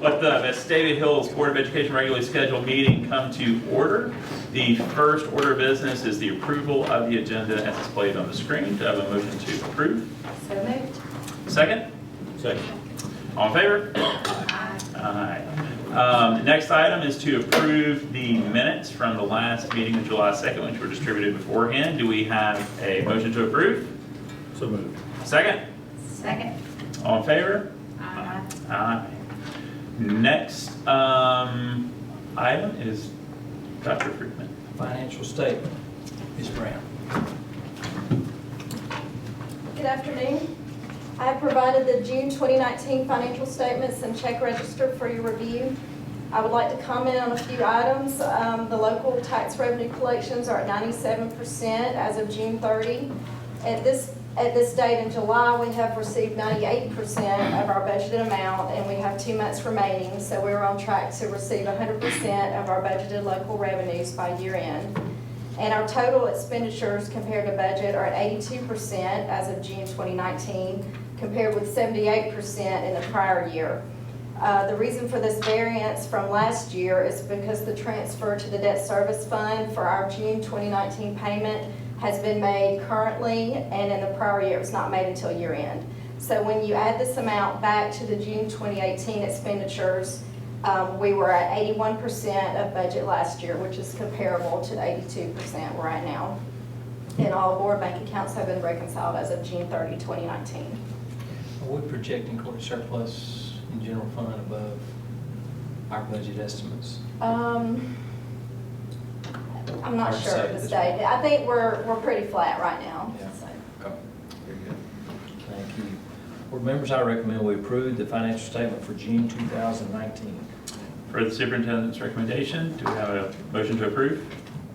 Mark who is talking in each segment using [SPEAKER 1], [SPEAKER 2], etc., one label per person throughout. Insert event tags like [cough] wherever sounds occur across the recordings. [SPEAKER 1] Let the Vestavia Hills Board of Education regularly scheduled meeting come to order. The first order of business is the approval of the agenda as displayed on the screen. Do I have a motion to approve?
[SPEAKER 2] So moved.
[SPEAKER 1] Second? Second. All in favor? Aye. Um, Next item is to approve the minutes from the last meeting of July 2nd, which were distributed beforehand. Do we have a motion to approve?
[SPEAKER 3] So moved.
[SPEAKER 1] Second?
[SPEAKER 2] Second.
[SPEAKER 1] All in favor?
[SPEAKER 2] Aye.
[SPEAKER 1] Aye. Next um, item is Dr. Friedman.
[SPEAKER 4] Financial statement, Ms. Brown.
[SPEAKER 5] Good afternoon. I have provided the June 2019 financial statements and check register for your review. I would like to comment on a few items. Um, The local tax revenue collections are at 97% as of June 30. At this, at this date in July, we have received 98% of our budgeted amount, and we have two months remaining, so we're on track to receive 100% of our budgeted local revenues by year end. And our total expenditures compared to budget are at eighty-two percent as of June twenty nineteen, compared with seventy-eight percent in the prior year. Uh, the reason for this variance from last year is because the transfer to the debt service fund for our June twenty nineteen payment has been made currently, and in the prior year, it was not made until year end. So when you add this amount back to the June twenty eighteen expenditures, um, We were at eighty-one percent of budget last year, which is comparable to the eighty-two percent we're at now. And all board bank accounts have been reconciled as of June 30, 2019.
[SPEAKER 4] Are we projecting court surplus in general fund above our budget estimates?
[SPEAKER 5] Um, I'm not
[SPEAKER 4] Hard to
[SPEAKER 5] sure
[SPEAKER 4] say
[SPEAKER 5] at this
[SPEAKER 4] at this
[SPEAKER 5] date. I think we're, we're pretty flat right now.
[SPEAKER 4] Yeah.
[SPEAKER 5] so.
[SPEAKER 4] Okay, very good. Thank you. Board members, I recommend we approve the financial statement for June 2019.
[SPEAKER 1] For the superintendent's recommendation, do we have a motion to approve?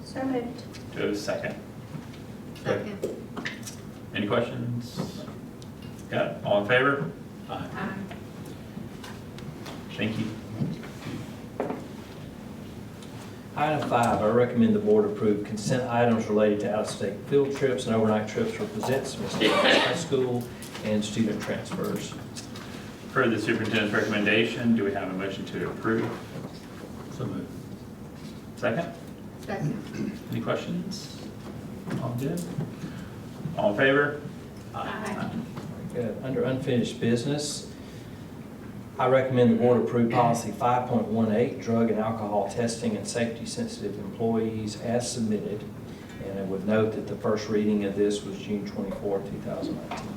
[SPEAKER 2] So moved.
[SPEAKER 1] Do we have a second?
[SPEAKER 2] Second.
[SPEAKER 1] Any questions? Got it? All in favor?
[SPEAKER 2] Aye.
[SPEAKER 1] Thank you.
[SPEAKER 4] Item five, I recommend the board approve consent items related to out-of-state field trips and overnight trips for Pizzett's Mystic High School and student transfers.
[SPEAKER 1] For the superintendent's recommendation, do we have a motion to approve?
[SPEAKER 3] So moved.
[SPEAKER 1] Second?
[SPEAKER 2] Second.
[SPEAKER 1] Any questions? All good? All in favor?
[SPEAKER 2] Aye.
[SPEAKER 4] Good. Uh, Under unfinished business, I recommend the board approve policy 5.18, drug and alcohol testing and safety-sensitive employees as submitted. And I would note that the first reading of this was June 24, 2019.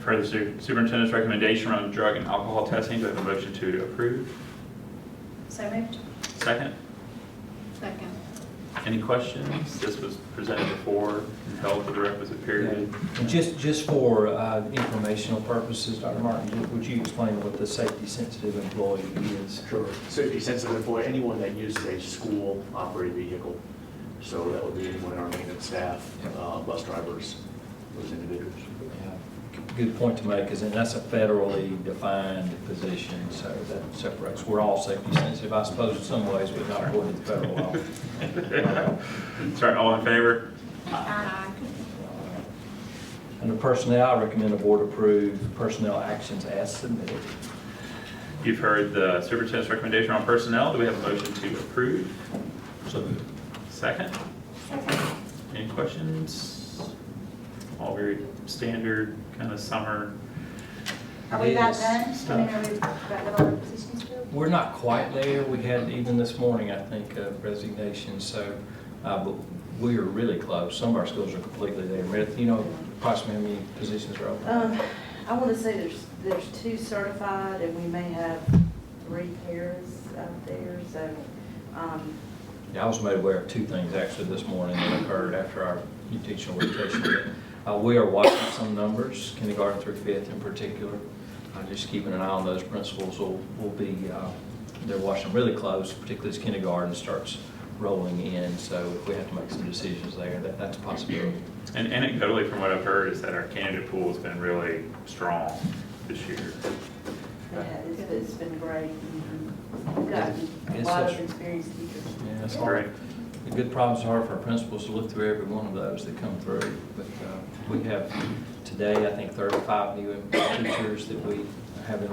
[SPEAKER 1] For the su- superintendent's recommendation on drug and alcohol testing, do we have a motion to approve?
[SPEAKER 2] So moved.
[SPEAKER 1] Second?
[SPEAKER 2] Second.
[SPEAKER 1] Any questions? This was presented before and held for the requisite period.
[SPEAKER 4] [laughs] And just, just for uh, informational purposes, Dr. Martin, ju- would you explain what the safety-sensitive employee is?
[SPEAKER 6] Sure. Safety sensitive for anyone that uses a school operated vehicle. So that would be anyone in our maintenance staff, uh, bus drivers, those individuals.
[SPEAKER 4] Yeah, Good point to make, because that's a federally defined position, so that separates, we're all safety sensitive, I suppose, in some ways, but not according to federal law.
[SPEAKER 1] Sorry, all in favor?
[SPEAKER 2] Aye.
[SPEAKER 4] Under personnel, I recommend the board approve personnel actions as submitted.
[SPEAKER 1] You've heard the superintendent's recommendation on personnel. Do we have a motion to approve?
[SPEAKER 4] So moved.
[SPEAKER 1] Second?
[SPEAKER 5] Second.
[SPEAKER 1] Any questions? All very standard kind of summer.
[SPEAKER 2] Are we about
[SPEAKER 4] Yes.
[SPEAKER 2] done? I mean, are we about with all the positions filled?
[SPEAKER 4] We're not quite there, we had even this morning, I think, a resignation, so, uh, but we are really close, some of our schools are completely there. Meredith, you know, approximately how many positions are open?
[SPEAKER 7] Um, I want to say there's, there's two certified, and we may have three pairs out there, so, um,
[SPEAKER 4] Yeah, I was made aware of two things actually this morning that occurred after our teacher orientation. Uh, We are watching some numbers, kindergarten through fifth in particular. Uh, Just keeping an eye on those principals will, will be, uh, they're watching really close, particularly as kindergarten starts rolling in. So if we have to make some decisions there, that, that's a possibility.
[SPEAKER 1] And anecdotally, from what I've heard, is that our candidate pool has been really strong this year.
[SPEAKER 7] yeah, it's, it's been great. We've gotten a
[SPEAKER 4] Mm-hmm. It's
[SPEAKER 7] lot
[SPEAKER 4] such-
[SPEAKER 7] of experienced teachers.
[SPEAKER 4] Yeah,
[SPEAKER 1] That's
[SPEAKER 4] it's hard.
[SPEAKER 1] great.
[SPEAKER 4] The good problems are for our principals to look through every one of those that come through. But uh, we have today, I think, 35 new teachers that we have in